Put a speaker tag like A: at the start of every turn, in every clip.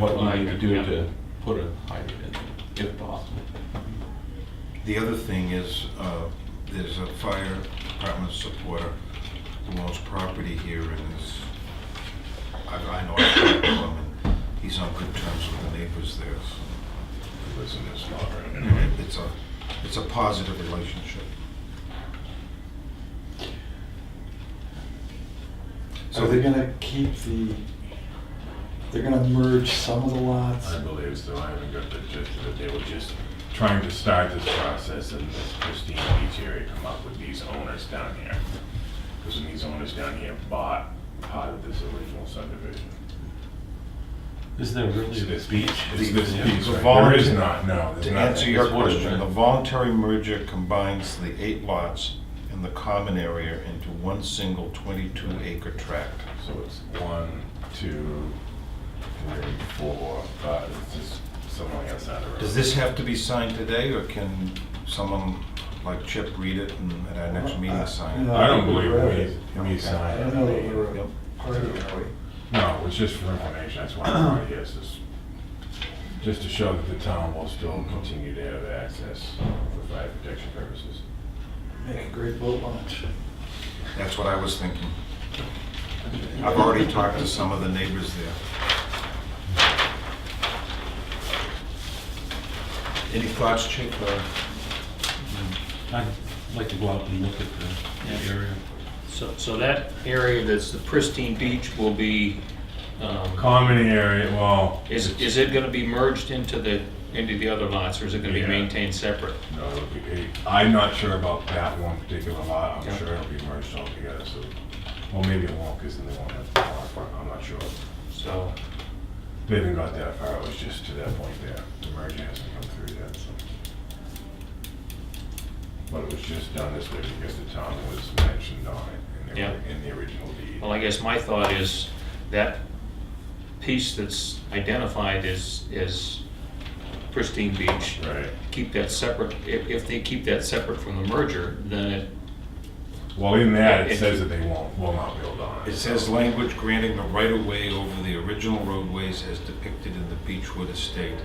A: what you need to do
B: Yeah.
A: to put a hydrant in, if possible.
C: The other thing is, uh, there's a fire department supporter who owns property here and is, I I know, I've talked to him, and he's on good terms with the neighbors there. so he lives in this lot, right? Anyway, It's a, it's a positive relationship.
D: So they're gonna keep the, they're gonna merge some of the lots?
B: I believe so, I haven't got the gist of it, they were just trying to start this process and this Christine Beach area come up with these owners down here. Because when these owners down here bought part of this original subdivision.
A: Is there
B: Is this beach?
C: The-
B: Is this
C: the-
B: beach,
C: the
B: right? There
C: voluntary-
B: is not, no, there's
C: To
B: not.
C: answer your
A: it's one of
C: question,
A: them.
C: the voluntary merger combines the eight lots in the common area into one single 22 acre tract.
B: So it's one, two, three, four, five, it's just somewhere outside the road.
C: Does this have to be signed today, or can someone like Chip read it and at our next meeting sign
D: Uh,
C: it?
B: I don't believe
D: Right.
B: we, we
D: I
B: signed.
D: don't know that we're
C: Yep.
D: a party, are we?
B: No, it was just for information, that's why I'm right here, is just, just to show that the town will still continue to have access for fire protection purposes.
D: Make a great boat launch.
C: That's what I was thinking. I've already talked to some of the neighbors there. Any thoughts, Chip? or-
A: I'd like to go out and look at the area.
E: So, so that area that's the pristine beach will be, um,
B: Common area, well.
E: is, is it gonna be merged into the, into the other lots, or is it gonna be
B: Yeah.
E: maintained separate?
B: No, it'll be, it- I'm not sure about that one particular lot, I'm
E: Yeah.
B: sure it'll be merged all together, so, well, maybe it won't, because then they won't have the lot, but I'm not sure.
E: So,
B: They haven't got that far, it was just to that point there, the merger hasn't come through yet, so. But it was just done this way because the town was mentioned on it in
E: Yeah.
B: the, in the original deed.
E: well, I guess my thought is that piece that's identified is, is pristine beach.
B: Right,
E: Keep that separate, if, if they keep that separate from the merger, then it,
B: well, in that, it
E: It-
B: says that they won't, will not build on it.
C: It says language granting the right-of-way over the original roadways as depicted in the Beechwood Estate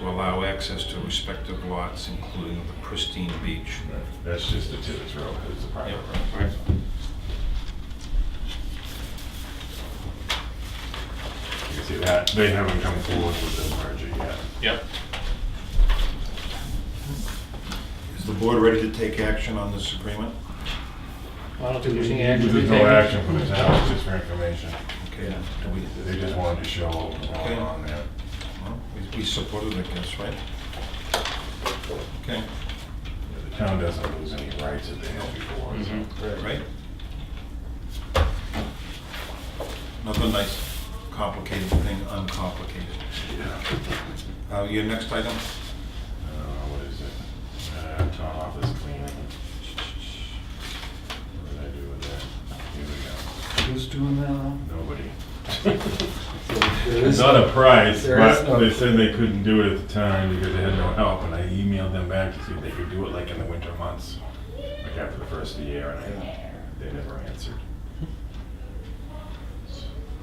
C: to allow access to respective lots, including the pristine beach.
B: Right, That's just the Tibbetts Road, it's a private
C: Yeah.
B: road. You can see that, they haven't come forward with the merger yet.
E: yep,
C: Is the board ready to take action on this agreement?
E: I don't think there's any action.
B: There's no action from the town, it's just for information.
C: Okay. do we-
B: They just wanted to show what was going on there.
C: well, we- We supported it, I guess, right? Okay,
B: The town doesn't lose any rights that they held before. so.
E: Mhm.
C: right? Another nice complicated thing, uncomplicated.
B: Yeah.
C: Uh, Your next item?
B: Uh, what is it? Uh, town office cleaning. What did I do with that? Here we
D: Who's doing that now?
B: go. Nobody.
D: There
B: It's
D: is-
B: not a price,
D: There is
B: but
D: no-
B: they said they couldn't do it at the time because they had no help, and I emailed them back to see if they could do it like in the winter months, like after the first of the year, and I, they never answered.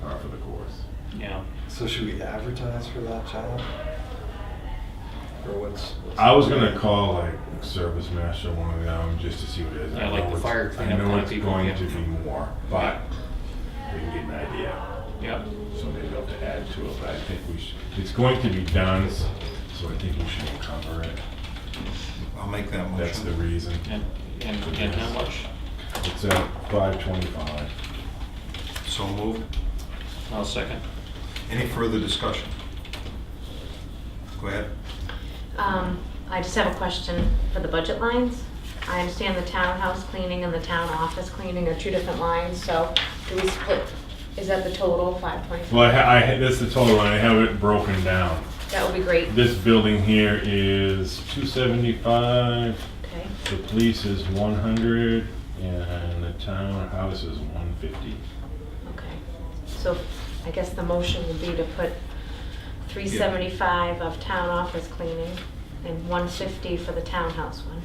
B: Par for the course.
E: Yeah.
D: So should we advertise for that job? Or what's? what's-
B: I was gonna call like service master one of them just to see what it is. I
E: Yeah, like
B: know
E: the
B: it's-
E: fire cleanup
B: I know
E: kind of
B: it's
E: people,
B: going
E: yeah.
B: to be more, but we can get an idea.
E: Yep,
B: So maybe I'll have to add to it, but I think we should, it's going to be done, so I think we should cover it.
C: I'll make that motion.
B: That's the reason.
E: and, and, and how much?
B: It's at five twenty-five.
C: So moved.
E: I'll second.
C: Any further discussion? Go ahead.
F: Um, I just have a question for the budget lines. I understand the townhouse cleaning and the town office cleaning are two different lines, so do we split, is that the total, five point?
B: Well, I, ha- I, ha- that's the total, and I have it broken down.
F: That would be great,
B: This building here is two seventy-five,
F: okay?
B: the police is one hundred, and the townhouse is one fifty.
F: Okay, so I guess the motion would be to put three seventy-five of town office cleaning and one fifty for the townhouse one,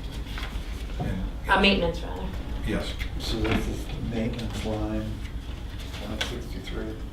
C: And-
F: uh, maintenance rather.
C: Yes.
D: So this is the maintenance line, one sixty-three.